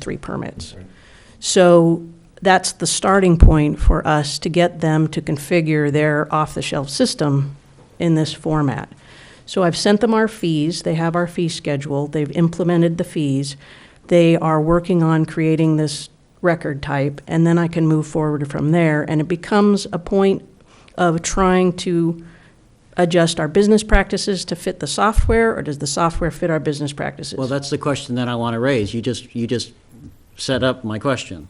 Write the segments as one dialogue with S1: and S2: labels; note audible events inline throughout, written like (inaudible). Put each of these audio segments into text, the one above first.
S1: three permits. So that's the starting point for us to get them to configure their off-the-shelf system in this format. So I've sent them our fees, they have our fee schedule, they've implemented the fees. They are working on creating this record type, and then I can move forward from there. And it becomes a point of trying to adjust our business practices to fit the software, or does the software fit our business practices?
S2: Well, that's the question that I want to raise. You just, you just set up my question.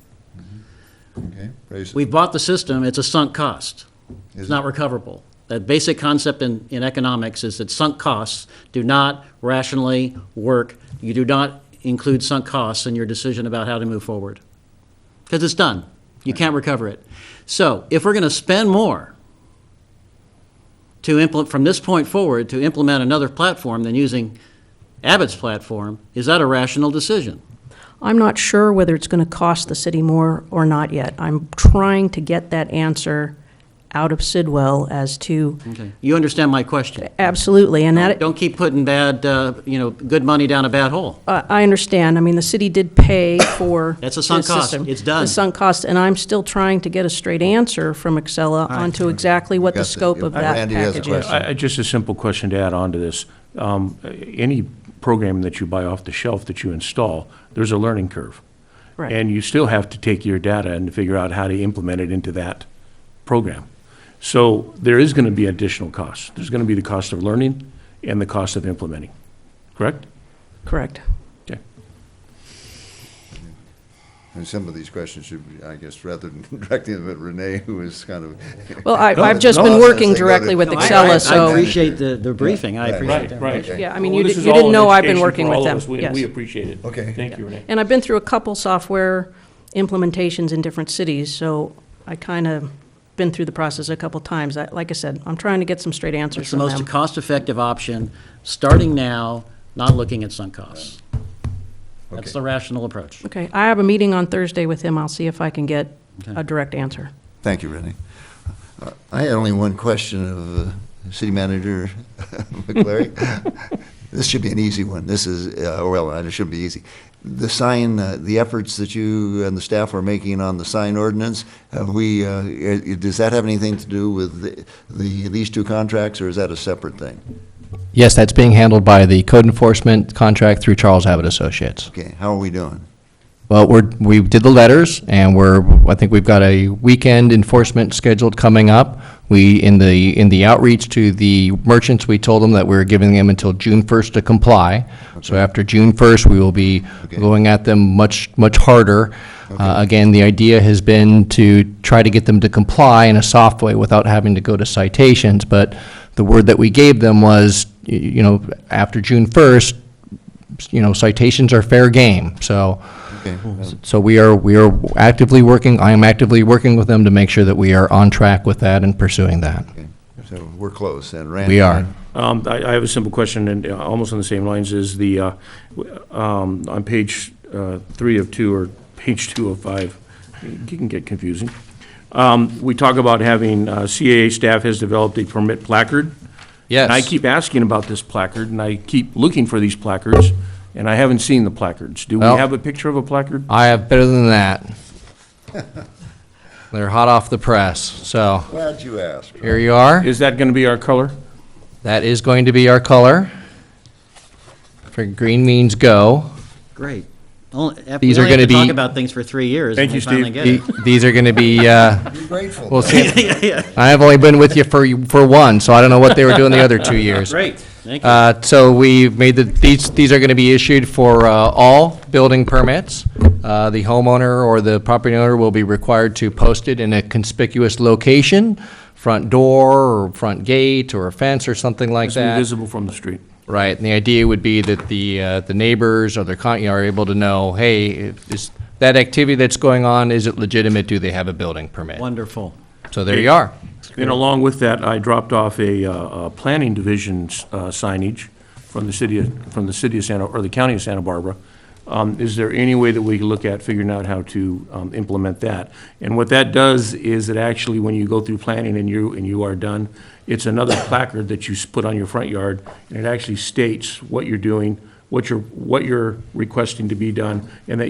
S3: Okay, raise
S2: We bought the system, it's a sunk cost.
S3: Is
S2: It's not recoverable. That basic concept in, in economics is that sunk costs do not rationally work. You do not include sunk costs in your decision about how to move forward. Because it's done. You can't recover it. So if we're going to spend more to implement, from this point forward, to implement another platform than using Abbott's platform, is that a rational decision?
S1: I'm not sure whether it's going to cost the city more or not yet. I'm trying to get that answer out of Sidwell as to,
S2: Okay. You understand my question?
S1: absolutely, and that,
S2: Don't keep putting bad, uh, you know, good money down a bad hole.
S1: I I understand, I mean, the city did pay for.
S2: That's a sunk
S1: this
S2: cost.
S1: system.
S2: It's done.
S1: It's sunk cost, and I'm still trying to get a straight answer from Excella onto exactly what the
S3: Got the-
S1: scope of that
S3: Randy has a
S1: package
S3: question.
S1: is.
S3: Yes.
S4: I, I- just a simple question to add on to this. Um, Any program that you buy off the shelf that you install, there's a learning curve.
S1: Right.
S4: And you still have to take your data and figure out how to implement it into that program. So there is going to be additional costs. There's going to be the cost of learning and the cost of implementing, correct?
S1: Correct.
S4: Okay.
S3: And some of these questions should, be, I guess, rather than (laughs) directing them at Renee, who is kind of.
S1: Well, I-
S3: No,
S1: I've
S3: it's
S1: just been
S3: nonsense.
S1: working
S3: They go to-
S1: directly with
S3: No, I-
S1: Excella,
S2: I-
S1: so-
S2: I appreciate the, the briefing, I
S3: Right,
S2: appreciate that.
S4: right.
S1: Yeah, I mean, you di- you didn't know I've been working with them, yes.
S4: We appreciate it.
S3: Okay.
S4: Thank you, Renee.
S1: And I've been through a couple software implementations in different cities, so I kind of been through the process a couple times. I- Like I said, I'm trying to get some straight answers
S2: It's the
S1: from
S2: most
S5: Um,
S1: them.
S2: cost-effective option, starting now, not looking at sunk costs. That's
S3: Okay.
S2: the rational approach.
S1: Okay, I have a meeting on Thursday with him. I'll see if I can get
S2: Okay.
S1: a direct answer.
S3: Thank you, Renee. Uh, I had only one question of uh, City Manager (laughs)
S2: (laughs)
S3: McClary. This should be an easy one. This is, uh, well, it shouldn't be easy. The sign, uh, the efforts that you and the staff are making on the sign ordinance, have we, uh, i- does that have anything to do with the- the, these two contracts, or is that a separate thing?
S5: Yes, that's being handled by the code enforcement contract through Charles Abbott Associates.
S3: Okay, how are we doing?
S5: Well, we're, we did the letters, and we're, I think we've got a weekend enforcement scheduled coming up. We, in the, in the outreach to the merchants, we told them that we were giving them until June first to comply. So after June first, we will be
S3: Okay.
S5: going at them much, much harder. Uh, again, the idea has been to try to get them to comply in a soft way without having to go to citations, but the word that we gave them was, y- you know, after June first, you know, citations are fair game, so.
S3: Okay.
S5: So we are, we are actively working, I am actively working with them to make sure that we are on track with that and pursuing that.
S3: Okay, So we're close, and Randy?
S5: We are.
S4: Um, I, I have a simple question, and uh, almost on the same lines as the, uh, w- um, on page, uh, three of two, or page two of five, it can get confusing. Um, we talk about having, uh, CAA staff has developed a permit placard.
S5: Yes.
S4: And I keep asking about this placard, and I keep looking for these placards, and I haven't seen the placards. Do we
S5: Well-
S4: have a picture of a placard?
S5: I have better than that. (laughs) They're hot off the press, so
S3: Glad you asked.
S5: here you are.
S4: Is that gonna be our color?
S5: That is going to be our color. For green means go.
S2: Great. Only- after-
S5: These
S2: we
S5: are
S2: only have
S5: gonna
S2: to Talk
S5: be-
S2: about things for three years.
S4: Thank
S2: and
S4: you,
S2: we finally
S4: Steve.
S2: get
S5: The-
S2: it.
S5: These are going to be, uh,
S3: We're grateful.
S5: we'll see.
S2: Yeah, yeah.
S5: I have only been with you for, for one, so I don't know what they were doing the other two years.
S2: Great, thank you.
S5: Uh, So we made the, these, these are going to be issued for uh, all building permits. Uh, The homeowner or the property owner will be required to post it in a conspicuous location, front door or front gate or a fence or something like
S4: It's gonna be
S5: that.
S4: visible from the street.
S5: Right, and the idea would be that the, uh, the neighbors or their county are able to know, hey, if is that activity that's going on, is it legitimate? Do they have a building permit?
S2: Wonderful.
S5: So there you are.
S4: And along with that, I dropped off a, uh, a planning division uh, signage from the city, of- from the city of Santa, or the county of Santa Barbara. Um, Is there any way that we can look at figuring out how to um, implement that? And what that does is it actually, when you go through planning and you, and you are done, it's another (coughs) placard that you s- put on your front yard, and it actually states what you're doing, what you're, what you're requesting to be done, and that